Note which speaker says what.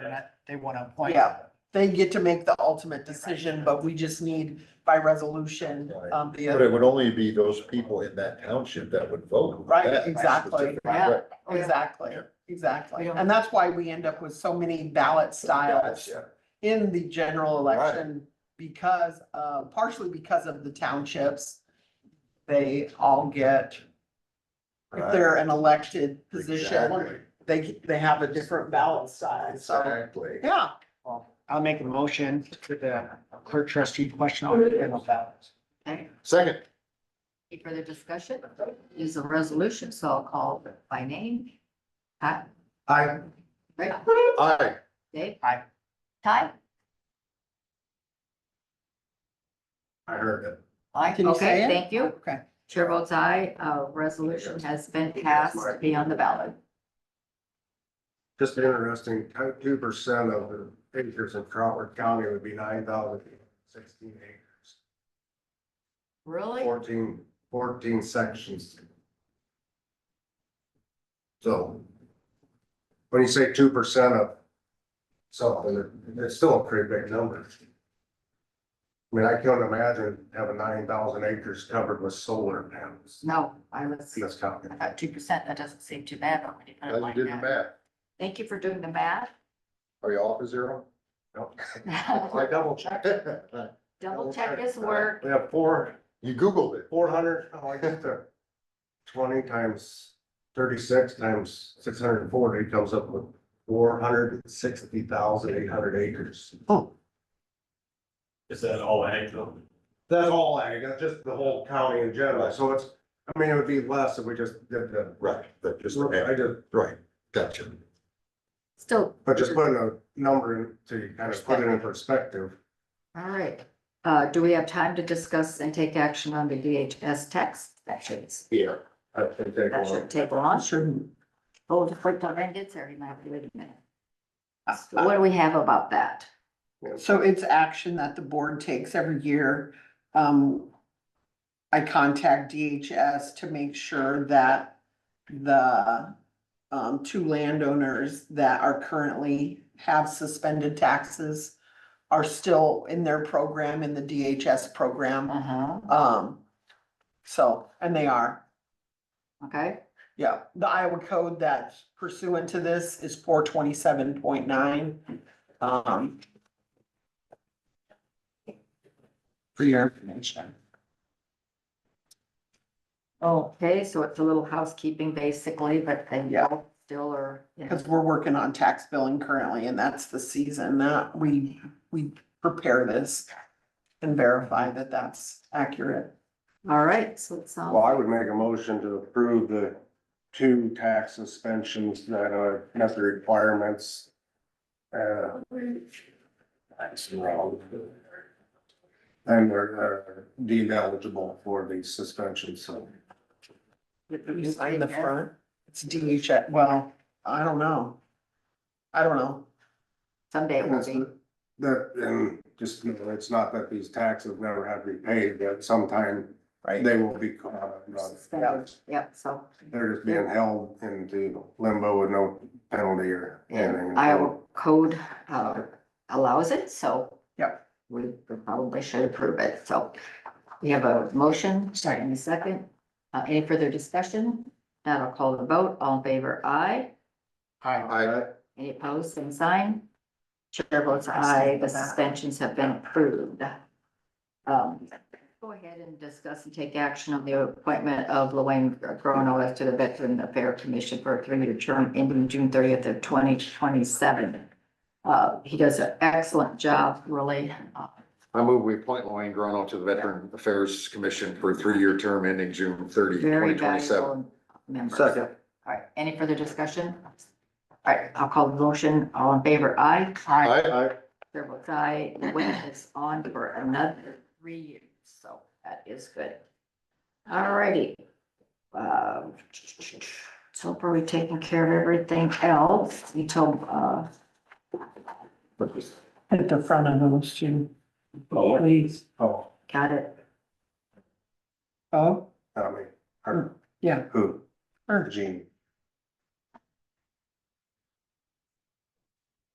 Speaker 1: gonna, they wanna appoint.
Speaker 2: Yeah. They get to make the ultimate decision, but we just need by resolution,
Speaker 3: Right.
Speaker 2: um, the.
Speaker 3: But it would only be those people in that township that would vote.
Speaker 2: Right,
Speaker 3: That
Speaker 2: exactly.
Speaker 3: specific-
Speaker 4: Yeah.
Speaker 3: right.
Speaker 2: Exactly,
Speaker 3: Yeah.
Speaker 2: exactly.
Speaker 4: We don't-
Speaker 2: And that's why we end up with so many ballot styles
Speaker 3: Yeah.
Speaker 2: in the general
Speaker 3: Right.
Speaker 2: election because, uh, partially because of the townships. They all get, if
Speaker 3: Right.
Speaker 2: they're an elected position,
Speaker 3: Exactly.
Speaker 2: they, they have a different ballot style, so,
Speaker 3: Exactly.
Speaker 2: yeah.
Speaker 1: I'll make a motion to the clerk trustee question on the general ballot.
Speaker 4: Okay,
Speaker 3: Second,
Speaker 4: any further discussion? Is a resolution, so I'll call by name. Pat,
Speaker 1: I,
Speaker 4: Rick,
Speaker 3: aye,
Speaker 4: Dave?
Speaker 1: Aye.
Speaker 4: Ty?
Speaker 3: I heard it.
Speaker 4: Aye,
Speaker 2: Can you say
Speaker 4: okay,
Speaker 2: it?
Speaker 4: thank you.
Speaker 2: Okay.
Speaker 4: Chair votes aye, uh, resolution has been passed to be on the ballot.
Speaker 5: Just interesting, two percent of the acres in Crawford County would be nine thousand sixteen acres,
Speaker 4: Really?
Speaker 5: fourteen, fourteen sections. So when you say two percent of something, it's still a pretty big number. I mean, I can't imagine having nine thousand acres covered with solar panels
Speaker 4: No, I was,
Speaker 5: in this county.
Speaker 4: I thought two percent, that doesn't seem too bad, but when you put
Speaker 3: Now
Speaker 4: it
Speaker 3: you
Speaker 4: like
Speaker 3: did the
Speaker 4: that.
Speaker 3: math.
Speaker 4: Thank you for doing the math.
Speaker 3: Are you off a zero?
Speaker 5: Nope. I double checked.
Speaker 4: Double check his work.
Speaker 5: We have four,
Speaker 3: You Googled it.
Speaker 5: four hundred, oh, I get there. Twenty times thirty-six times six hundred and forty comes up with four hundred and sixty thousand eight hundred acres.
Speaker 6: Is that all ag though?
Speaker 5: That's all ag, that's just the whole county in general, so it's, I mean, it would be less if we just did the.
Speaker 3: Right, that just,
Speaker 5: I just,
Speaker 3: right, gotcha.
Speaker 4: Still,
Speaker 5: but just putting a number in to kind of put it in perspective.
Speaker 4: all right. Uh, do we have time to discuss and take action on the DHS text? That should,
Speaker 3: Yeah.
Speaker 5: I think they
Speaker 4: that should
Speaker 5: will.
Speaker 4: take long.
Speaker 2: Sure.
Speaker 4: Oh, the quick time it gets there, you might have to wait a minute. So What do we have about that?
Speaker 2: So it's action that the board takes every year. Um, I contact DHS to make sure that the um, two landowners that are currently have suspended taxes are still in their program, in the DHS program.
Speaker 4: Uh-huh,
Speaker 2: Um, so, and they are,
Speaker 4: okay,
Speaker 2: yeah. The Iowa code that's pursuant to this is four twenty-seven point nine. Um, for your information.
Speaker 4: okay, so it's a little housekeeping basically, but then
Speaker 2: Yeah.
Speaker 4: y'all still are, you know,
Speaker 2: Because we're working on tax billing currently, and that's the season that we, we prepare this and verify that that's accurate.
Speaker 4: all right, so it
Speaker 5: Well,
Speaker 4: sounds,
Speaker 5: I would make a motion to approve the two tax suspensions that are met the requirements. Uh, That's wrong. And they're uh, deemed eligible for the suspension, so.
Speaker 2: You sign the front, it's DHS, well, I don't know. I don't know.
Speaker 4: someday it will be,
Speaker 5: That, and just, you know, it's not that these taxes never have to be paid, but sometime they will be caught. up.
Speaker 4: uh, Suspended. yep, so.
Speaker 5: They're just being held into limbo with no penalty or anything.
Speaker 4: Iowa code, uh, allows it, so.
Speaker 2: Yep.
Speaker 4: We probably should approve it, so we have a motion, starting in a second. Uh, any further discussion? Now I'll call the vote, all in favor, aye.
Speaker 3: I,
Speaker 4: Any opposed, same sign? Chair votes
Speaker 2: I stand
Speaker 4: aye, the
Speaker 2: for that.
Speaker 4: suspensions have been approved. Um, go ahead and discuss and take action on the appointment of Luanne Grono as to the Veteran Affairs Commission for a three-year term ending June thirtieth of twenty twenty-seven. Uh, he does an excellent job, really. Uh,
Speaker 3: I move we appoint Lorraine Grono to the Veteran Affairs Commission for a three-year term ending June 30,
Speaker 4: Very
Speaker 3: 2027.
Speaker 4: valuable member.
Speaker 5: Second.
Speaker 4: All right, any further discussion? All right, I'll call the motion. All in favor, aye.
Speaker 3: Aye.
Speaker 4: Chair votes aye, the wait is on for another three years, so that is good. All righty. Um, So far, we've taken care of everything else, we told, uh,
Speaker 2: At the front of those two,
Speaker 6: Oh,
Speaker 2: please.
Speaker 5: Oh,
Speaker 4: got it,
Speaker 2: Oh,
Speaker 5: I mean, her.
Speaker 2: Yeah.
Speaker 5: Who?
Speaker 2: Her.
Speaker 5: Jean.